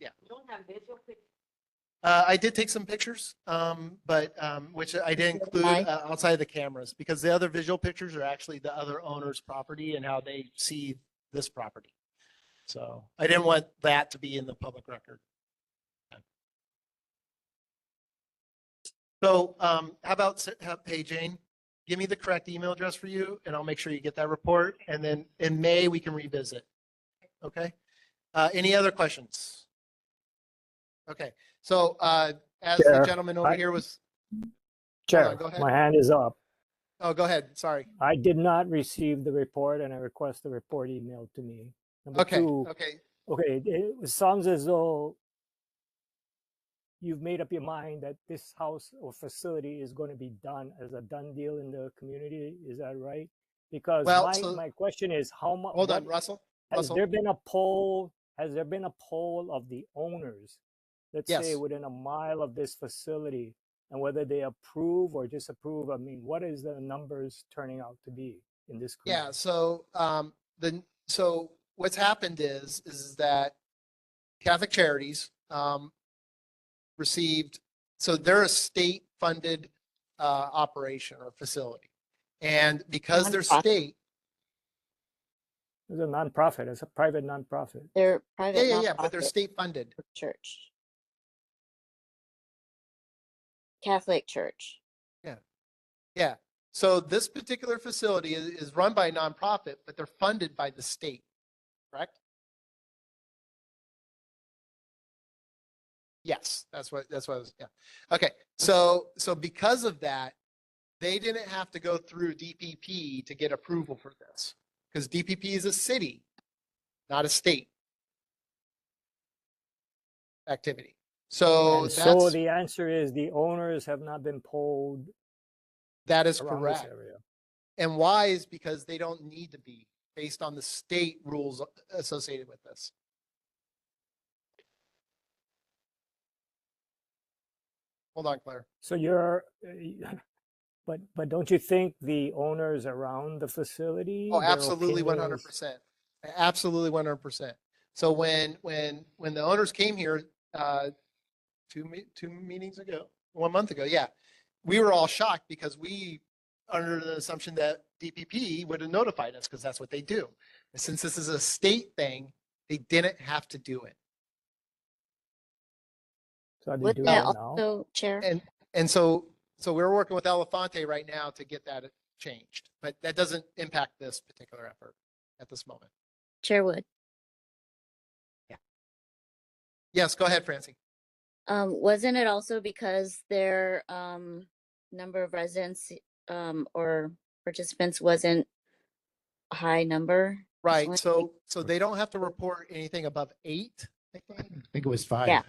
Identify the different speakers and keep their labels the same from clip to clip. Speaker 1: You don't have visual pic-
Speaker 2: Uh, I did take some pictures, um, but, um, which I didn't include,
Speaker 3: Aye.
Speaker 2: uh, outside of the cameras because the other visual pictures are actually the other owner's property and how they see this property. So I didn't want that to be in the public record. So, um, how about, s- how- hey Jane, give me the correct email address for you and I'll make sure you get that report. And then in May, we can revisit. Okay? Uh, any other questions? Okay, so, uh, as the
Speaker 4: Chair,
Speaker 2: gentleman over
Speaker 4: I-
Speaker 2: here was,
Speaker 4: Chair,
Speaker 2: go ahead.
Speaker 4: my hand is up.
Speaker 2: oh, go ahead, sorry.
Speaker 4: I did not receive the report and I request the report emailed to me. Number
Speaker 2: Okay, uh,
Speaker 4: two,
Speaker 2: okay,
Speaker 4: okay, it- it sounds as though you've made up your mind that this house or facility is going to be done as a done deal in the community. Is that right? Because
Speaker 2: Well,
Speaker 4: my,
Speaker 2: so-
Speaker 4: my question is how much.
Speaker 2: hold on, Russell.
Speaker 4: Has
Speaker 2: Russell.
Speaker 4: there been a poll? Has there been a poll of the owners? Let's say
Speaker 2: Yes.
Speaker 4: within a mile of this facility and whether they approve or disapprove. I mean, what is the numbers turning out to be in this?
Speaker 2: Yeah,
Speaker 4: community?
Speaker 2: so, um, the, so what's happened is, is that Catholic Charities, um, received, so they're a state-funded, uh, operation or facility. And because they're
Speaker 3: Nonprofit.
Speaker 2: state,
Speaker 4: It's a nonprofit. It's a private nonprofit.
Speaker 3: They're
Speaker 2: yeah,
Speaker 3: private.
Speaker 2: yeah, yeah, but they're
Speaker 3: nonprofit
Speaker 2: state-funded.
Speaker 3: Church. Catholic church.
Speaker 2: So this particular facility is, is run by a nonprofit, but they're funded by the state, correct? Yes, that's what, that's what I was, yeah. Okay, so, so because of that, they didn't have to go through DPP to get approval for this. Because DPP is a city, not a state activity. So
Speaker 4: and so
Speaker 2: that's,
Speaker 4: the answer is the owners have not been polled
Speaker 2: that is
Speaker 4: around this
Speaker 2: correct.
Speaker 4: area.
Speaker 2: And why is because they don't need to be based on the state rules associated with this. Hold on, Claire.
Speaker 4: So you're, uh, but, but don't you think the owners around the facility?
Speaker 2: Oh,
Speaker 4: their
Speaker 2: absolutely, one hundred
Speaker 4: opinions-
Speaker 2: percent. Absolutely, one hundred percent. So when, when, when the owners came here, uh, two, me- two meetings ago, one month ago, yeah, we were all shocked because we, under the assumption that DPP would have notified us because that's what they do. And Since this is a state thing, they didn't have to do it.
Speaker 4: So are Oh, they
Speaker 3: Would
Speaker 4: doing
Speaker 3: that
Speaker 4: it now?
Speaker 3: also, Chair?
Speaker 2: And, and so, so we're working with Elefante right now to get that changed, but that doesn't impact this particular effort at this moment.
Speaker 3: Chair Wood.
Speaker 2: Yes, go ahead, Francie.
Speaker 3: Um, wasn't it also because their, um, number of residents, um, or participants wasn't a high number?
Speaker 2: Right,
Speaker 3: one-
Speaker 2: so, so they don't have to report anything above eight, I think,
Speaker 5: I think it was five.
Speaker 3: Yeah.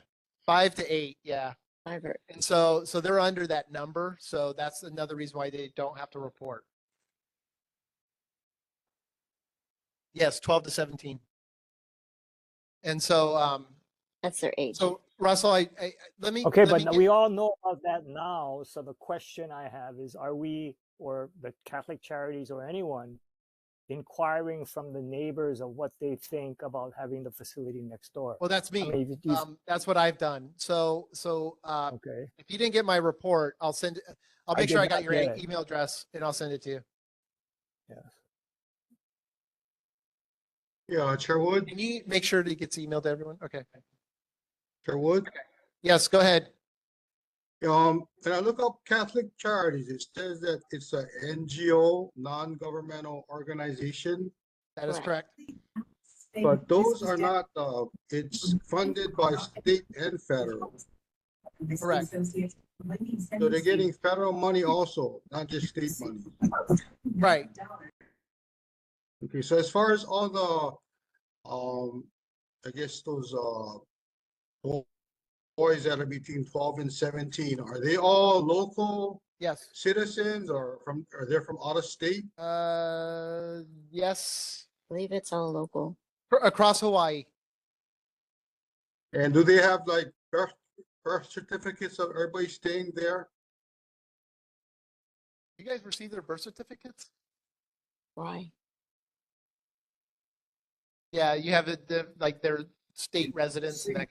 Speaker 2: five to eight, yeah.
Speaker 3: Five or-
Speaker 2: And so, so they're under that number, so that's another reason why they don't have to report. Yes, twelve to seventeen. And so, um,
Speaker 3: That's their age.
Speaker 2: so Russell, I, I, I- let me.
Speaker 4: Okay,
Speaker 2: let me
Speaker 4: but
Speaker 2: get-
Speaker 4: we all know about that now. So the question I have is, are we or the Catholic charities or anyone inquiring from the neighbors of what they think about having the facility next door?
Speaker 2: Well, that's
Speaker 4: I
Speaker 2: me.
Speaker 4: mean, if you-
Speaker 2: Um, that's what I've done. So, so, uh,
Speaker 4: okay.
Speaker 2: if you didn't get my report, I'll send, I'll
Speaker 4: I
Speaker 2: make sure
Speaker 4: did
Speaker 2: I got
Speaker 4: not
Speaker 2: your
Speaker 4: get
Speaker 2: e-
Speaker 4: it.
Speaker 2: email address and I'll send it to you.
Speaker 6: Yeah, Chair Wood,
Speaker 2: Can you make sure that it gets emailed to everyone? Okay.
Speaker 6: Chair Wood.
Speaker 2: Yes, go ahead.
Speaker 6: Um, when I look up Catholic Charities, it says that it's a NGO, non-governmental organization.
Speaker 2: That is correct.
Speaker 3: Correct.
Speaker 6: But those are not, uh, it's funded by state and federal.
Speaker 2: Correct.
Speaker 6: So they're getting federal money also, not just state money.
Speaker 2: Right.
Speaker 6: Okay, so as far as all the, um, I guess those, uh, bo- boys that are between twelve and seventeen, are they all local
Speaker 2: Yes.
Speaker 6: citizens or from, are they from out of state?
Speaker 2: Uh, yes,
Speaker 3: I believe it's all local.
Speaker 2: Fr- across Hawaii.
Speaker 6: And do they have like birth, birth certificates of everybody staying there?
Speaker 2: You guys receive their birth certificates?
Speaker 3: Why?
Speaker 2: Yeah, you have it, the- like their state residents and that